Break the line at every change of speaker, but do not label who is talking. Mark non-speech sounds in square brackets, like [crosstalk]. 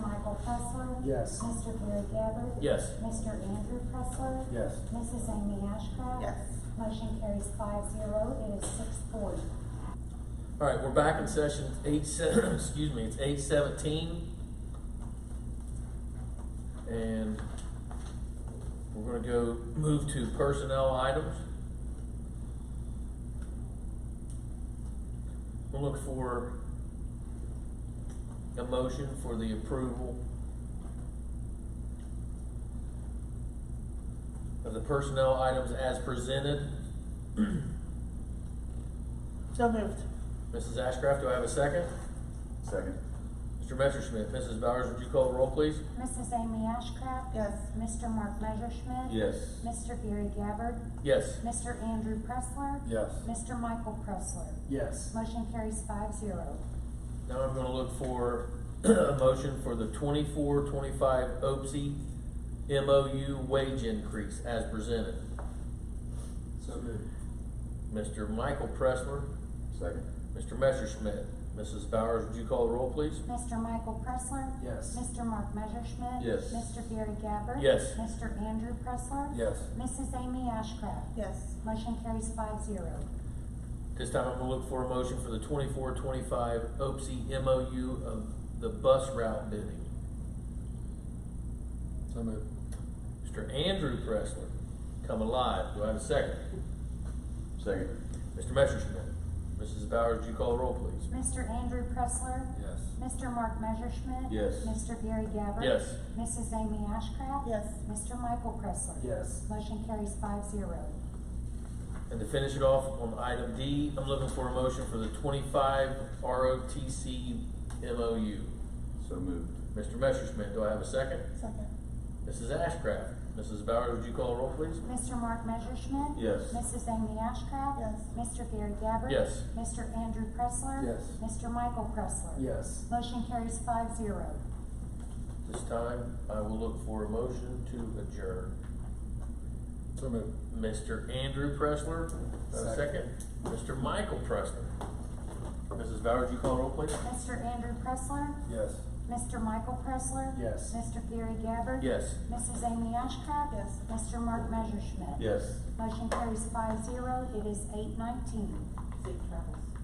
Pressler.
Yes.
Mr. Gary Gabbard.
Yes.
Mr. Andrew Pressler.
Yes.
Mrs. Amy Ashcraft.
Yes.
Motion carries five zero, it is six forty.
All right, we're back in session It's eight seven, [clears throat] excuse me, it's eight seventeen. And we're gonna go move to personnel items. We'll look for a motion for the approval of the personnel items as presented.
So moved.
Mrs. Ashcraft, do I have a second?
Second.
Mr. Messerschmidt, Mrs. Bowers, would you call the roll, please?
Mrs. Amy Ashcraft.
Yes.
Mr. Mark Messerschmidt.
Yes.
Mr. Gary Gabbard.
Yes.
Mr. Andrew Pressler.
Yes.
Mr. Michael Pressler.
Yes.
Motion carries five zero.
Now I'm gonna look for [clears throat] a motion for the twenty-four, twenty-five OPSI MOU wage increase as presented.
So moved.
Mr. Michael Pressler,
Second.
Mr. Messerschmidt, Mrs. Bowers, would you call the roll, please?
Mr. Michael Pressler.
Yes.
Mr. Mark Messerschmidt.
Yes.
Mr. Gary Gabbard.
Yes.
Mr. Andrew Pressler.
Yes.
Mrs. Amy Ashcraft.
Yes.
Motion carries five zero.
This time I'm gonna look for a motion for the twenty-four, twenty-five OPSI MOU of the bus route bidding.
So moved.
Mr. Andrew Pressler, come alive, do I have a second?
Second.
Mr. Messerschmidt, Mrs. Bowers, would you call the roll, please?
Mr. Andrew Pressler.
Yes.
Mr. Mark Messerschmidt.
Yes.
Mr. Gary Gabbard.
Yes.
Mrs. Amy Ashcraft.
Yes.
Mr. Michael Pressler.
Yes.
Motion carries five zero.
And to finish it off on item D, I'm looking for a motion for the twenty-five ROTC MOU.
So moved.
Mr. Messerschmidt, do I have a second?
Second.
Mrs. Ashcraft, Mrs. Bowers, would you call a roll, please?
Mr. Mark Messerschmidt.
Yes.
Mrs. Amy Ashcraft.
Yes.
Mr. Gary Gabbard.
Yes.
Mr. Andrew Pressler.
Yes.
Mr. Michael Pressler.
Yes.
Motion carries five zero.
This time, I will look for a motion to adjourn.
So moved.
Mr. Andrew Pressler, a second.
Second.
Mr. Michael Pressler. Mrs. Bowers, would you call a roll, please?
Mr. Andrew Pressler.
Yes.
Mr. Michael Pressler.
Yes.
Mr. Gary Gabbard.
Yes.
Mrs. Amy Ashcraft.
Yes.
Mr. Mark Messerschmidt.
Yes.
Motion carries five zero. It is eight nineteen.
Safe travels.